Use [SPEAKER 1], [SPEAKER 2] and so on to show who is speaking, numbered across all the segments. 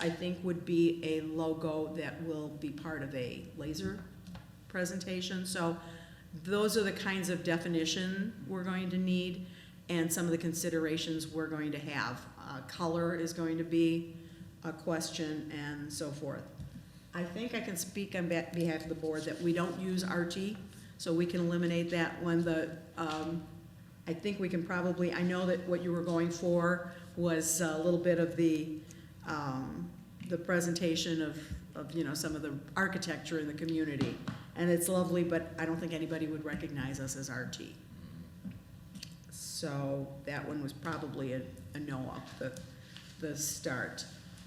[SPEAKER 1] I think would be a logo that will be part of a laser presentation. So those are the kinds of definition we're going to need and some of the considerations we're going to have. Uh, Color is going to be a question and so forth. I think I can speak on be- behalf of the board that we don't use RT, so we can eliminate that when the, um, I think we can probably, I know that what you were going for was a little bit of the, um, the presentation of, of, you know, some of the architecture in the community. And it's lovely, but I don't think anybody would recognize us as RT. So that one was probably a, a no off the, the start.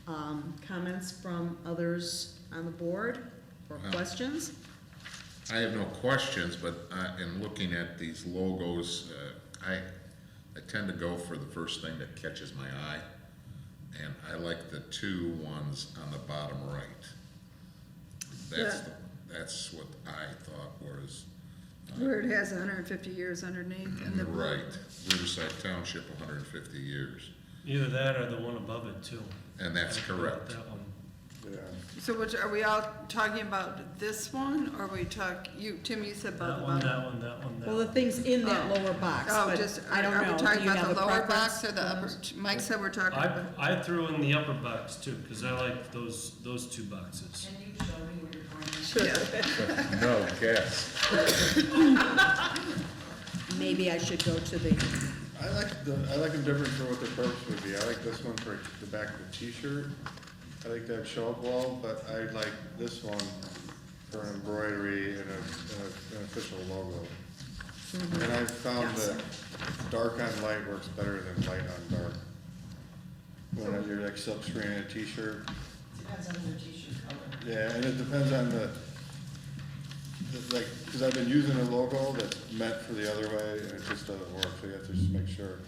[SPEAKER 1] Um, comments from others on the board or
[SPEAKER 2] Wow.
[SPEAKER 1] questions?
[SPEAKER 2] I have no questions, but uh, in looking at these logos, uh, I, I tend to go for the first thing that catches my eye. And I like the two ones on the bottom right. That's,
[SPEAKER 3] Yeah.
[SPEAKER 2] the- that's what I thought was,
[SPEAKER 3] Where it has hundred and fifty years underneath and the.
[SPEAKER 2] right, Riverside Township, hundred and fifty years.
[SPEAKER 4] Either that or the one above it too.
[SPEAKER 2] And that's correct.
[SPEAKER 4] That one.
[SPEAKER 3] So which, are we all talking about this one, or we talk, you, Tim, you said about
[SPEAKER 4] That
[SPEAKER 3] the
[SPEAKER 4] one,
[SPEAKER 3] bottom?
[SPEAKER 4] that one, that one, that
[SPEAKER 1] Well, the
[SPEAKER 4] one.
[SPEAKER 1] thing's in that
[SPEAKER 3] Oh.
[SPEAKER 1] lower box,
[SPEAKER 3] Oh,
[SPEAKER 1] but
[SPEAKER 3] just,
[SPEAKER 1] I
[SPEAKER 3] are
[SPEAKER 1] don't
[SPEAKER 3] are
[SPEAKER 1] know.
[SPEAKER 3] we
[SPEAKER 1] Do
[SPEAKER 3] talking
[SPEAKER 1] you have
[SPEAKER 3] about
[SPEAKER 1] a
[SPEAKER 3] the lower
[SPEAKER 1] preference?
[SPEAKER 3] box or the upper, Mike said we're talking
[SPEAKER 4] I,
[SPEAKER 3] about,
[SPEAKER 4] I threw in the upper box too, because I like those, those two boxes.
[SPEAKER 5] Can you show me where you're going?
[SPEAKER 3] yeah,
[SPEAKER 2] No guess.
[SPEAKER 1] Maybe I should go to the,
[SPEAKER 6] I like the, I like them different for what their purpose would be. I like this one for the back of the t-shirt. I like that show up wall, but I like this one for an embroidery and a, and a- an official logo. And I've found
[SPEAKER 1] Yes.
[SPEAKER 6] that dark on light works better than light on dark. When you're like silk screen and a t-shirt,
[SPEAKER 5] Depends on your t-shirt color.
[SPEAKER 6] yeah, and it depends on the, the- like, because I've been using a logo that's meant for the other way, and it just doesn't work, so you have to just make sure,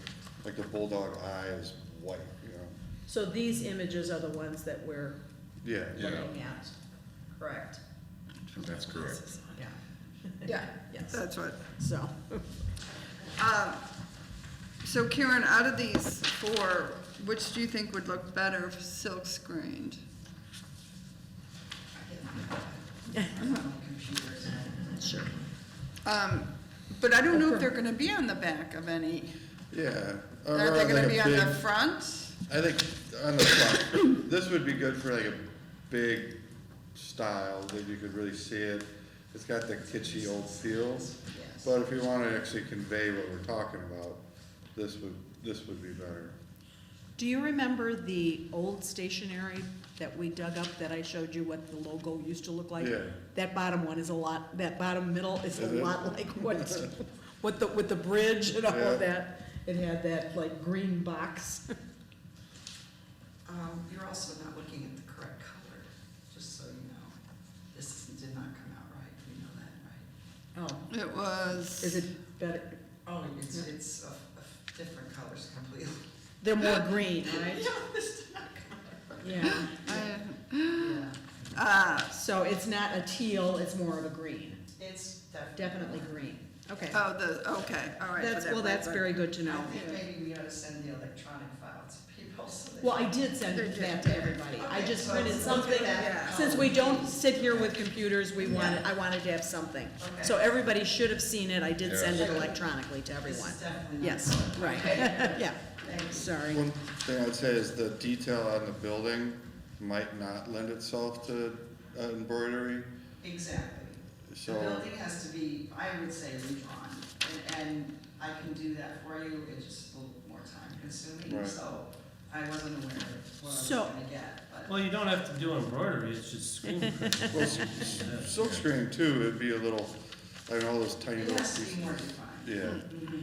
[SPEAKER 6] like, the bulldog eye is white, you know?
[SPEAKER 1] so these images are the ones that we're
[SPEAKER 6] Yeah,
[SPEAKER 2] Yeah.
[SPEAKER 1] looking at, correct?
[SPEAKER 2] That's correct.
[SPEAKER 1] Yeah,
[SPEAKER 3] yeah,
[SPEAKER 1] Yes.
[SPEAKER 3] that's what.
[SPEAKER 1] so,
[SPEAKER 3] Um, So Karen, out of these four, which do you think would look better if silk screened?
[SPEAKER 5] I'm on the computer, so.
[SPEAKER 1] sure.
[SPEAKER 3] Um, But I don't know if they're gonna be on the back of any,
[SPEAKER 6] yeah. Or
[SPEAKER 3] are they
[SPEAKER 6] like
[SPEAKER 3] gonna
[SPEAKER 6] a
[SPEAKER 3] be on the
[SPEAKER 6] big-
[SPEAKER 3] front?
[SPEAKER 6] I think on the front, this would be good for like a big style that you could really see it. It's got the kitschy old feel. But if you want to actually convey what we're talking about, this would, this would be better.
[SPEAKER 1] Do you remember the old stationery that we dug up that I showed you what the logo used to look like?
[SPEAKER 6] Yeah.
[SPEAKER 1] That bottom one is a lot, that bottom middle is a
[SPEAKER 6] Is it?
[SPEAKER 1] lot like what, what the, with the bridge and all
[SPEAKER 6] Yeah.
[SPEAKER 1] of that. It had that like green box.
[SPEAKER 5] Um, you're also not looking at the correct color, just so you know. This did not come out right, you
[SPEAKER 1] Oh,
[SPEAKER 5] know that, right?
[SPEAKER 3] It was.
[SPEAKER 1] is it better,
[SPEAKER 5] Oh, it's, it's a, a different colors completely.
[SPEAKER 1] they're more green,
[SPEAKER 5] Yeah,
[SPEAKER 1] right?
[SPEAKER 5] this did not come
[SPEAKER 1] Yeah,
[SPEAKER 3] I-
[SPEAKER 5] out right.
[SPEAKER 3] Uh,
[SPEAKER 1] so it's not a teal, it's more of a green,
[SPEAKER 5] Yeah, it's
[SPEAKER 1] definitely
[SPEAKER 5] definitely.
[SPEAKER 1] green, okay.
[SPEAKER 3] oh, the, okay, all right. so
[SPEAKER 1] That's,
[SPEAKER 3] that
[SPEAKER 1] well, that's
[SPEAKER 3] was-
[SPEAKER 1] very good to
[SPEAKER 5] I
[SPEAKER 1] know.
[SPEAKER 5] think maybe we ought to send the electronic file to people so they.
[SPEAKER 1] Well, I did send
[SPEAKER 3] They're
[SPEAKER 1] that
[SPEAKER 3] just-
[SPEAKER 1] to everybody, I
[SPEAKER 5] Okay,
[SPEAKER 1] just
[SPEAKER 5] so
[SPEAKER 1] printed
[SPEAKER 5] let's do
[SPEAKER 1] something,
[SPEAKER 5] that.
[SPEAKER 1] since we don't sit here with computers, we wanted, I wanted to have something.
[SPEAKER 5] Okay.
[SPEAKER 1] So everybody should have seen it, I did send it
[SPEAKER 5] Yeah.
[SPEAKER 1] electronically to
[SPEAKER 5] This
[SPEAKER 1] everyone.
[SPEAKER 5] is definitely not.
[SPEAKER 1] Yes,
[SPEAKER 5] correct.
[SPEAKER 1] right,
[SPEAKER 5] Okay,
[SPEAKER 1] yeah,
[SPEAKER 5] thank you.
[SPEAKER 1] sorry.
[SPEAKER 6] One thing I'd say is the detail on the building might not lend itself to uh, embroidery,
[SPEAKER 5] Exactly. The
[SPEAKER 6] so,
[SPEAKER 5] building has to be, I would say, redrawn, and, and I can do that for you, it's just a little more time consuming,
[SPEAKER 6] Right.
[SPEAKER 5] so I wasn't aware of what I was
[SPEAKER 1] So-
[SPEAKER 5] gonna get, but.
[SPEAKER 4] Well, you don't have to do embroidery, it's just screen print.
[SPEAKER 6] well, s- s- silk screen too, it'd be a little, I know those tiny
[SPEAKER 5] It
[SPEAKER 6] little
[SPEAKER 5] has to
[SPEAKER 6] pieces.
[SPEAKER 5] be more defined.
[SPEAKER 6] Yeah,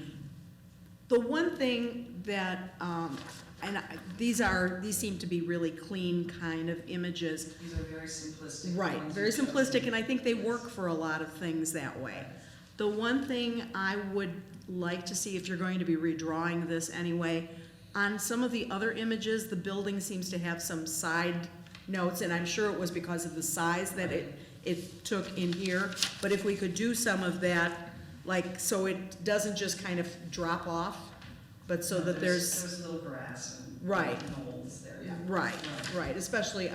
[SPEAKER 1] The one thing that, um, and I- these are, these seem to be really clean kind of images,
[SPEAKER 5] These are very simplistic.
[SPEAKER 1] Right,
[SPEAKER 5] ones
[SPEAKER 1] very
[SPEAKER 5] you chose.
[SPEAKER 1] simplistic, and I think they work for a lot of things that way. The one thing I would like to see, if you're going to be redrawing this anyway, on some of the other images, the building seems to have some side notes, and I'm sure it was because of the size that it, it took in here, but if we could do some of that, like, so it doesn't just kind of drop off, but so that there's,
[SPEAKER 5] There's little grass and.
[SPEAKER 1] Right.
[SPEAKER 5] Holes there, yeah.
[SPEAKER 1] right, right, especially